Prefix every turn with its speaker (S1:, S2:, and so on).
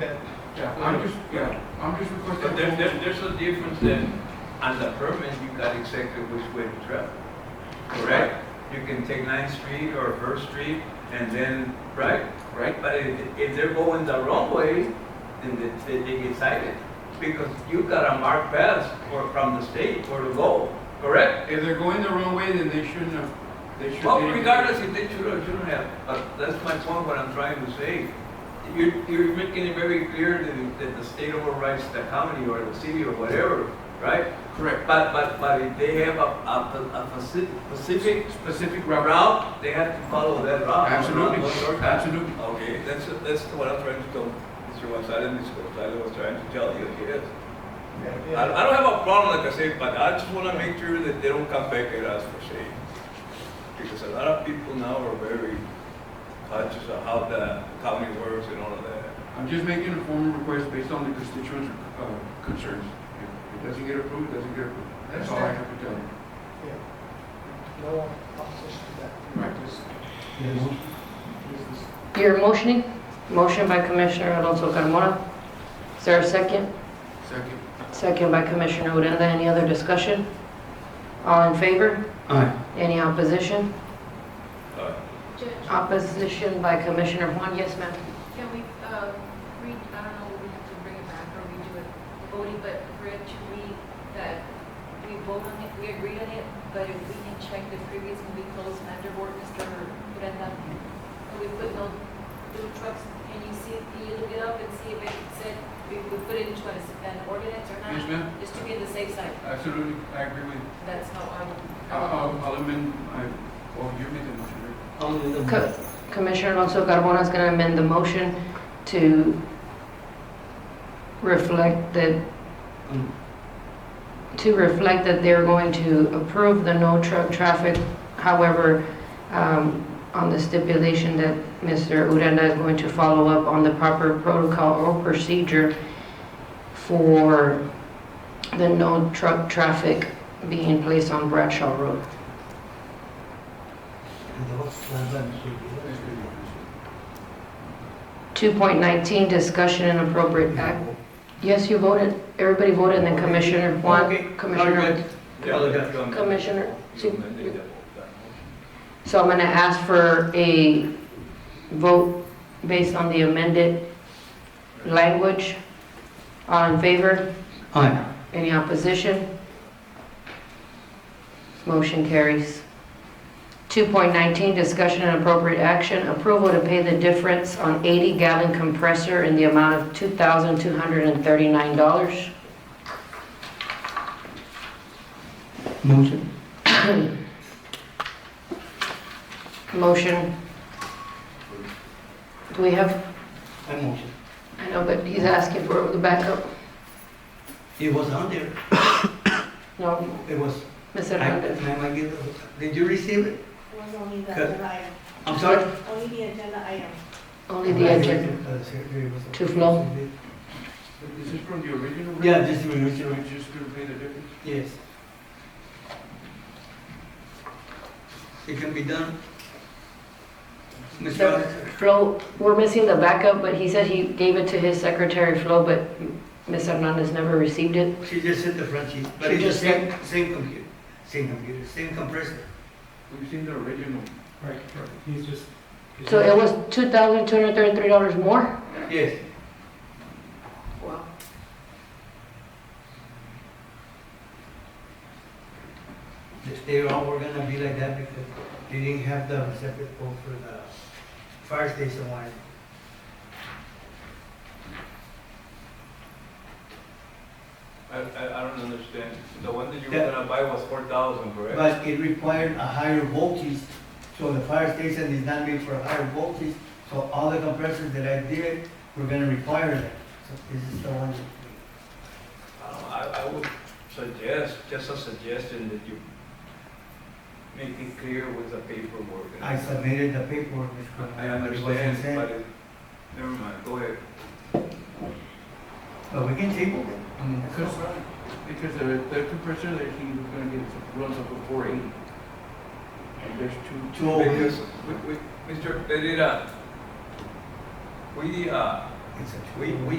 S1: That-
S2: Yeah, I'm just, yeah, I'm just requesting.
S1: But there, there, there's a difference then, on the permit, you got exactly which way to travel, correct? You can take Ninth Street or First Street, and then, right?
S2: Right.
S1: But if, if they're going the wrong way, then they, they- they get cited, because you got a marked pass for, from the state for to go, correct?
S2: If they're Oh, going the wrong way, then they shouldn't have, they should.
S1: Well,
S2: they-
S1: regardless if they should or shouldn't have, but that's my point, what I'm trying to say. You're, you're making it very clear that, that the state overrides the county or the city or whatever, right?
S2: Correct,
S1: But, but, but if they have a, a, a specific, specific
S2: specific route.
S1: route, they have to follow that
S2: Uh,
S1: route.
S2: Absolutely.
S1: not shortcut.
S2: Absolutely.
S1: Okay, that's, that's what I'm trying to tell Mr. Gonzalez, Mr. Gonzalez was trying to tell you, yes. I, I don't have a problem, like I said, but I just wanna make sure that they don't come back at us for shade. Because a lot of people now are very conscious of how the county works and all of that.
S2: I'm just making a formal request based on the constituents' uh, concerns. If it doesn't get approved, it doesn't get approved. That's all I have to tell you.
S3: Yeah. No opposition to that.
S2: Right.
S3: Just- just-
S4: You're motioning? Motion by Commissioner Alonso Carmona. Is there a second?
S2: Second.
S4: Second by Commissioner Odena. Any other discussion? All in favor?
S2: Aye.
S4: Any opposition?
S1: Uh,
S5: Judge,
S4: Opposition by Commissioner Juan. Yes, ma'am.
S5: can we, uh, read, I don't know, we have to bring it back or redo it, voting, but for it to read that we vote on it, we agree on it, but if we can check the previous and we close under board, Mr. Brenda, and we put no food trucks, and you see, can you look it up and see if it said, we, we put it into an- an ordinance or
S2: Yes,
S5: not?
S2: ma'am.
S5: Just to be on the safe side,
S2: Absolutely, I agree with you.
S5: that's how I would.
S2: I'll, I'll- I'll amend, I, well, you made the motion, right?
S4: Co- Commissioner Alonso Carmona is going to amend the motion to reflect that, to reflect that they're going to approve the no truck traffic. However, um, on the stipulation that Mr. Uranda is going to follow up on the proper protocol or procedure for the no truck traffic being placed on Bradshaw Road.
S2: That's good, yeah.
S4: 2.19, discussion and appropriate act. Yes, you voted, everybody voted, and then Commissioner
S1: Okay.
S4: Juan, Commissioner,
S1: Yeah, that's what I'm-
S4: Commissioner,
S1: You
S4: see,
S1: amended that motion.
S4: so I'm going to ask for a vote based on the amended language. All in favor? Aye. Any opposition? Motion carries. 2.19, discussion and appropriate action, approval to pay the difference on 80-gallon compressor in the amount of $2,239.
S6: Motion.
S4: Motion. Do we have,
S6: I motion.
S4: I know, but he's asking for the backup.
S6: It was on there.
S4: No,
S6: It was.
S4: Ms.
S6: I-
S4: Hernandez.
S6: ma'am, I give it- Did you receive it?
S7: It was only the
S6: Good.
S7: agenda item,
S6: I'm sorry?
S7: only the agenda item.
S4: Only the agenda.
S6: Uh, secretary was-
S4: To flow.
S2: Is this from the original?
S6: Yeah, this is
S2: You're
S6: original.
S2: just gonna pay the difference?
S6: Yes. It can be done. Mr.
S4: The
S6: Alex,
S4: Flo, we're missing the backup, but he said he gave it to his secretary, Flo, but Ms. Hernandez never received it.
S6: she just said the front sheet, but
S4: She
S6: it's the
S4: just
S6: same, same computer, same computer, same compressor.
S2: We've seen the original.
S3: Right, right. He's just. he's
S4: So
S3: just-
S4: it was $2,233 more?
S6: Yes.
S4: Wow.
S6: They- They all oh, were gonna be like that because they didn't have the separate code for the fire station one.
S1: I, I, I don't understand, the one that you were
S6: Yeah.
S1: gonna buy was four thousand, correct?
S6: But it required a higher voltage, so the fire station is not made for a higher voltage, so all the compressors that I did were gonna require that. So this is the one. that-
S1: Um, I, I would suggest, just a suggestion that you make it clear with the paperwork. and-
S6: I submitted the paperwork, Mr. Coronel,
S1: I
S6: but it wasn't
S1: understand,
S6: sent.
S1: but, it- never mind, go ahead.
S6: But we can table it. I mean,
S2: Mm,
S6: that's
S2: Because,
S6: no problem.
S2: because the, the compressor that he was gonna get runs up to four eighty. And there's two,
S6: Two oh eight.
S1: Because, we, we, Mr. Pereira, we, uh,
S8: it's a.
S6: We, we